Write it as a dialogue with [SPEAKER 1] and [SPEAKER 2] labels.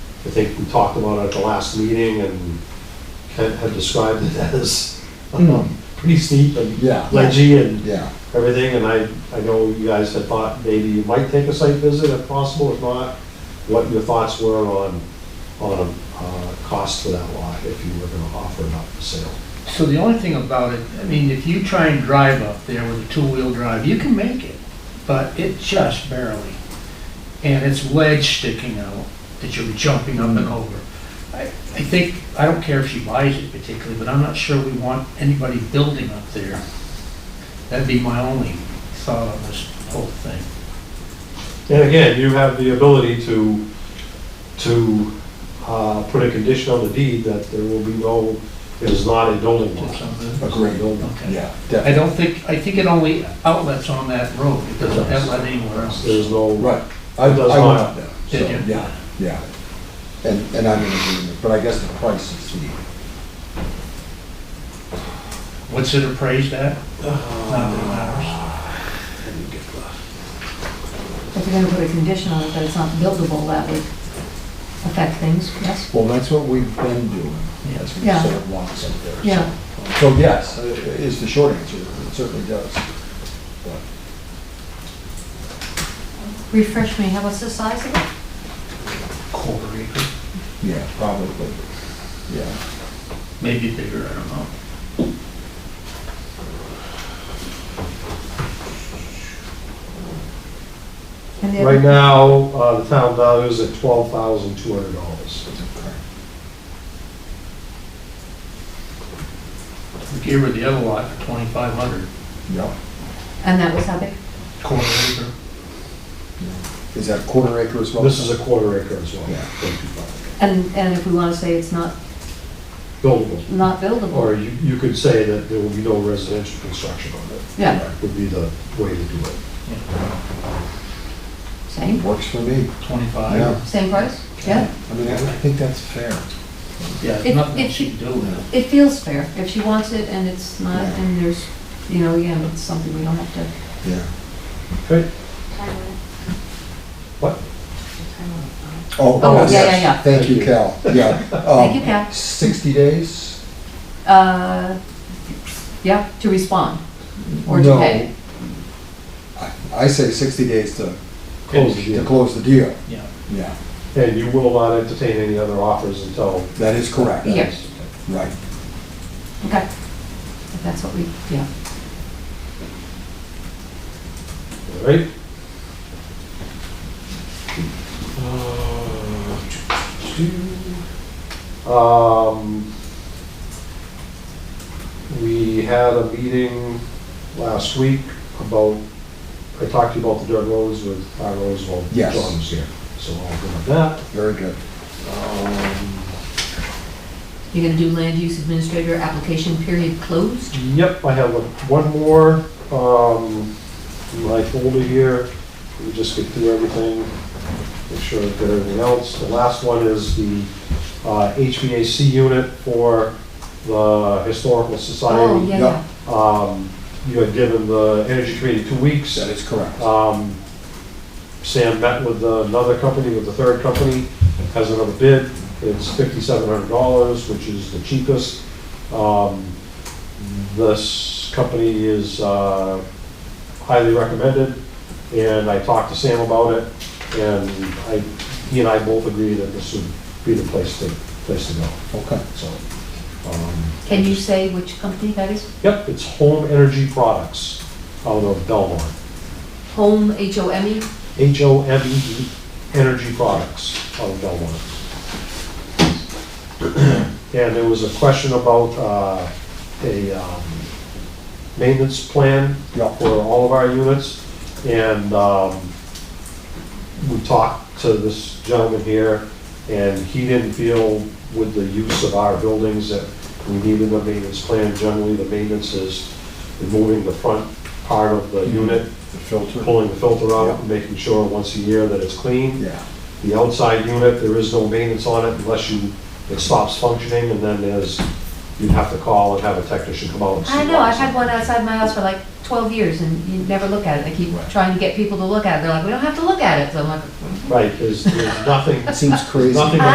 [SPEAKER 1] I think we talked about it at the last meeting and had had described it as um, pretty steep and
[SPEAKER 2] Hmm. Yeah.
[SPEAKER 1] ledgy and
[SPEAKER 2] Yeah,
[SPEAKER 1] everything, and I, I know you guys had thought maybe you might take a site visit if possible, if not, what your thoughts were on, on, uh, cost for that lot, if you were gonna offer it up for sale.
[SPEAKER 3] So the only thing about it, I mean, if you try and drive up there with a two-wheel drive, you can make it, but it just barely. And it's ledge sticking out that you're jumping up and over. I, I think, I don't care if she buys it particularly, but I'm not sure we want anybody building up there. That'd be my only thought on this whole thing.
[SPEAKER 1] And again, you have the ability to, to, uh, put a condition on the deed that there will be no, it is not a building
[SPEAKER 3] Is it
[SPEAKER 1] lot.
[SPEAKER 3] something?
[SPEAKER 2] agreed.
[SPEAKER 3] Okay.
[SPEAKER 2] Yeah,
[SPEAKER 3] I
[SPEAKER 2] definitely.
[SPEAKER 3] don't think, I think it only outlets on that road, it doesn't outlet anywhere else.
[SPEAKER 1] There's no.
[SPEAKER 2] Right. I, I
[SPEAKER 1] It
[SPEAKER 2] went
[SPEAKER 1] does not.
[SPEAKER 2] up there. so,
[SPEAKER 3] Did you?
[SPEAKER 2] Yeah, yeah. And, and I'm in agreement, but I guess the price is the,
[SPEAKER 3] What's it appraised at? Not that it matters.
[SPEAKER 4] If you're gonna put a condition on it that it's not buildable, that would affect things, yes?
[SPEAKER 2] well, that's what we've been doing.
[SPEAKER 3] Yeah.
[SPEAKER 2] That's what
[SPEAKER 4] Yeah.
[SPEAKER 2] the sort of wants up there. so.
[SPEAKER 4] Yeah,
[SPEAKER 2] So yes, uh, is the short answer. It certainly does.
[SPEAKER 4] refresh me, how what's the size of it?
[SPEAKER 3] quarter acre,
[SPEAKER 2] Yeah, probably. Yeah.
[SPEAKER 3] maybe bigger, I don't know.
[SPEAKER 4] And the
[SPEAKER 1] Right
[SPEAKER 4] other,
[SPEAKER 1] now, uh, the town value is at twelve thousand two hundred dollars.
[SPEAKER 2] Okay.
[SPEAKER 3] We gave her the other lot for twenty-five hundred,
[SPEAKER 2] Yeah.
[SPEAKER 4] and that was how big?
[SPEAKER 3] quarter acre.
[SPEAKER 2] Is that a quarter acre as well?
[SPEAKER 1] This is a quarter acre as well.
[SPEAKER 2] Yeah.
[SPEAKER 4] And, and if we wanna say it's not,
[SPEAKER 1] Buildable,
[SPEAKER 4] not
[SPEAKER 1] or
[SPEAKER 4] buildable,
[SPEAKER 1] you, you could say that there will be no residential construction on it,
[SPEAKER 4] yeah,
[SPEAKER 1] would be the way to do it.
[SPEAKER 4] same,
[SPEAKER 2] Works for me.
[SPEAKER 3] Twenty-five,
[SPEAKER 2] Yeah.
[SPEAKER 4] same price, yeah?
[SPEAKER 2] I mean, I think that's fair.
[SPEAKER 3] yeah, there's
[SPEAKER 4] If-
[SPEAKER 3] nothing
[SPEAKER 4] if
[SPEAKER 3] she can do with it.
[SPEAKER 4] It feels fair, if she wants it and it's not, and there's, you know, again, it's something we don't have to,
[SPEAKER 2] Yeah.
[SPEAKER 1] Okay, What?
[SPEAKER 2] Oh,
[SPEAKER 4] Oh,
[SPEAKER 2] yes.
[SPEAKER 4] yeah, yeah, yeah.
[SPEAKER 2] Thank you, Cal. Yeah.
[SPEAKER 4] thank you, Cal.
[SPEAKER 2] 60 days?
[SPEAKER 4] Uh, yeah, to respond, or to
[SPEAKER 2] No.
[SPEAKER 4] pay.
[SPEAKER 2] I- I say 60 days to,
[SPEAKER 1] close the
[SPEAKER 2] to
[SPEAKER 1] deal.
[SPEAKER 2] close the deal.
[SPEAKER 3] Yeah.
[SPEAKER 2] Yeah,
[SPEAKER 1] And you will not entertain any other offers until.
[SPEAKER 2] that is correct.
[SPEAKER 4] Yeah.
[SPEAKER 2] Right.
[SPEAKER 4] Okay, if that's what we, yeah.
[SPEAKER 1] All right? Uh, Um, we had a meeting last week about, I talked to you about the dirt roads with our roads, well,
[SPEAKER 2] Yes.
[SPEAKER 1] John was here, so I'll go with that.
[SPEAKER 2] Very good.
[SPEAKER 1] Um,
[SPEAKER 4] You're gonna do land use administrator application period closed?
[SPEAKER 1] Yep, I have one more, um, in my folder here, let me just get through everything, make sure I've got everything else. The last one is the uh, HVAC unit for the Historical
[SPEAKER 4] Oh,
[SPEAKER 1] Society.
[SPEAKER 4] yeah,
[SPEAKER 2] yeah.
[SPEAKER 4] yeah.
[SPEAKER 1] Um, You had given the Energy Committee two weeks.
[SPEAKER 2] That is correct.
[SPEAKER 1] Um, Sam met with another company, with the third company, has another bid. It's fifty-seven hundred dollars, which is the cheapest. Um, This company is uh, highly recommended, and I talked to Sam about it, and I, he and I both agree that this would be the place to, place to go,
[SPEAKER 2] Okay.
[SPEAKER 1] so. um,
[SPEAKER 4] Can you say which company that is?
[SPEAKER 1] Yep, it's Home Energy Products out of Belmont.
[SPEAKER 4] Home, H-O-M-E?
[SPEAKER 1] H-O-M-E, E Energy Products out of Belmont. And there was a question about uh, a um, maintenance plan
[SPEAKER 2] Yeah.
[SPEAKER 1] for all of our units. And um, we talked to this gentleman here, and he didn't feel with the use of our buildings that we needed a maintenance plan. Generally, the maintenance is removing the front part of the unit
[SPEAKER 2] The filter?
[SPEAKER 1] pulling the filter out, and making sure once a year that it's clean.
[SPEAKER 2] Yeah.
[SPEAKER 1] The outside unit, there is no maintenance on it unless you, it stops functioning, and then there's, you'd have to call and have a technician come out and see.
[SPEAKER 4] I know,
[SPEAKER 1] why.
[SPEAKER 4] I've had one outside my house for like 12 years and you never look at it. I keep
[SPEAKER 2] Right.
[SPEAKER 4] trying to get people to look at it. They're like, we don't have to look at it. So I'm like,
[SPEAKER 1] Right, there's, there's nothing,
[SPEAKER 2] Seems crazy.
[SPEAKER 1] nothing